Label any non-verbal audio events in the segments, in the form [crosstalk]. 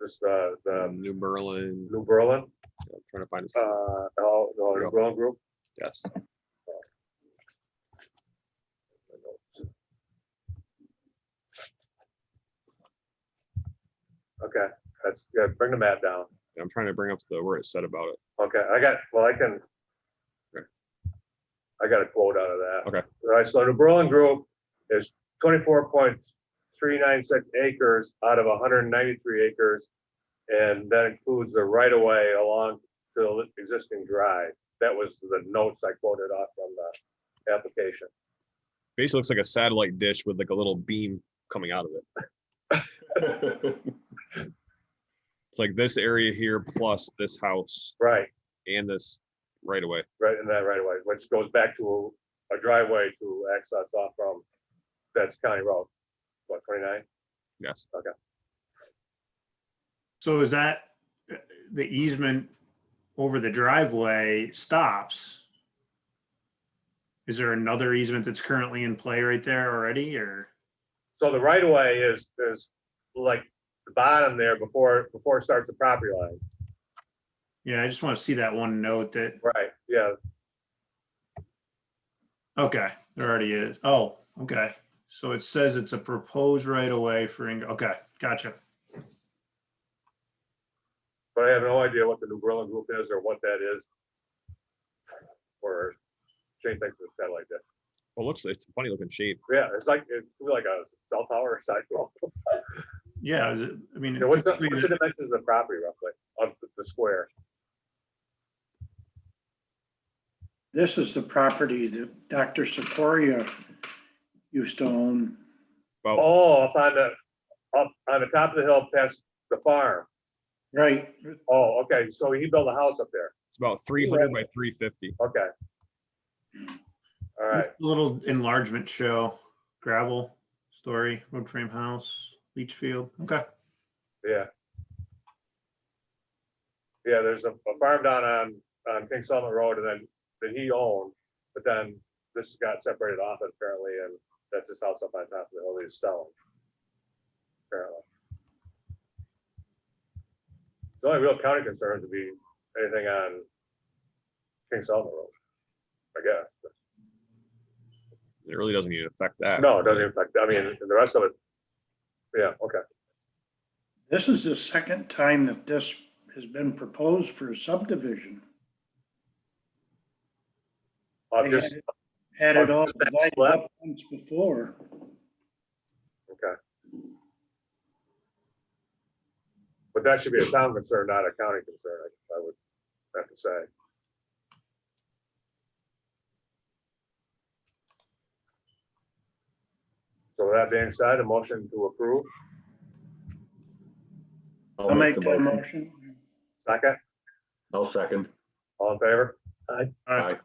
just the, the New um, Berlin, New Berlin, I'm trying to find his, uh, the whole- the whole New Berlin group. yes. Okay, that's, yeah, bring the map down. I'm trying to bring up the, where it said about it. Okay, I got, well, I can. Okay. I got a quote out of that. Okay. All right, so the Berlin Group is twenty-four point three nine six acres out of hundred and ninety-three acres. And that includes the right-of-way along to the existing drive. That was the notes I quoted off from the application. Basically looks like a satellite dish with like a little beam coming out of it. [laughs] It's like this area here plus this house Right, and this right away. right in that right-of-way, which goes back to a driveway to access off from, that's County Road, what, twenty-nine? Yes. So is that, uh, the easement over the driveway stops? Is there another easement that's currently in play right there already, or? So the right of way is, is like the bottom there before, before it starts the property line. Yeah, I just want to see that one note that, Right, yeah, okay, there already is. Oh, okay. So it says it's a proposed right of way for, Ing- okay, gotcha. but I have no idea what the New Berlin group is or what that is. Or Shane thinks it's satellite dish. Well, it looks, it's a funny looking shape. Yeah, it's like, it's like a cell tower or sidewalk. Yeah, is it- I mean. You know, What's the typically what's the- the dimensions of the property roughly, of the- the square? This is the property that Dr. Seporia used to own. About, Oh, up on the, up on the top of the hill past the farm. Right, Oh, okay, so he built a house up there, it's about three hundred by three fifty. okay. All right, Little enlargement show, gravel, story, wood frame house, leach field, okay. yeah. Yeah, there's a a farm down on, on King Solomon Road and then, that he owned, but then this got separated off apparently, and that's his house up on top of the hill he's selling. Apparently. The only real county concerns would be anything on King Solomon Road, I guess. It really doesn't even affect that. No, it doesn't affect, I mean, the rest of it. Yeah, okay, this is the second time that this has been proposed for a subdivision. I'll They just, had it- Had it all Just that divided slab? up once before. okay. But that should be a town concern, not a county concern, I- I would have to say. So with that being said, a motion to approve, I'll make that motion. second, I'll second. all in favor? All Aye.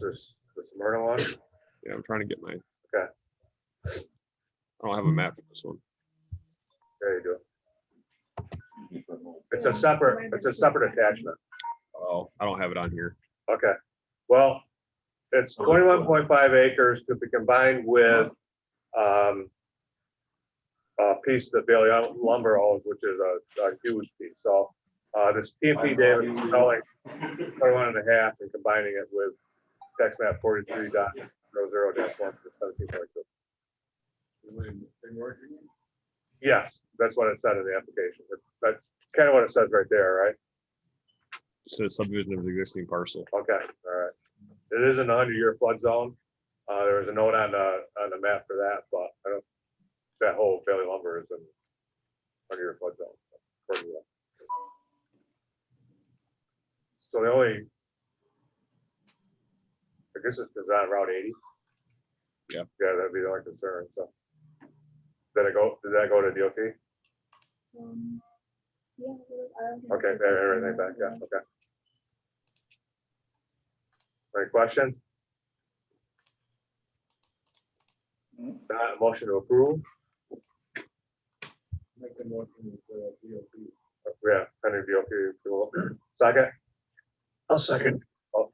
This, this Myrtle one, Yeah, I'm trying to get my. Okay. I don't have a map for this one. there you go. It's a separate, it's a separate attachment. Oh, I don't have it on here. Okay, well, it's twenty-one point five acres to be combined with, um, a piece that Bailey Lumber owns, which is a, a huge piece, so, uh, this TMP Davis is selling 21 and a half and combining it with tax map forty-three dot zero zero dash one for seventeen point two. Yes, that's what it said in the application, that's kind of what it says right there, right? It says subdivision of the existing parcel. Okay, all right. It is in the hundred year flood zone. Uh, there was a note on the, on the map for that, but I don't, that whole Bailey lumber is in hundred year flood zone. according to that. So the only, I guess it's because on Route eighty. Yeah. Yeah, that'd be the only concern, so. Did it go, did that go to DOT? Um, yeah, I don't Okay, have they have everything back, yeah, okay. Any question? Uh, motion to approve? Make the motion uh, for DOP. Yeah, pending DOP approval. Second? I'll second.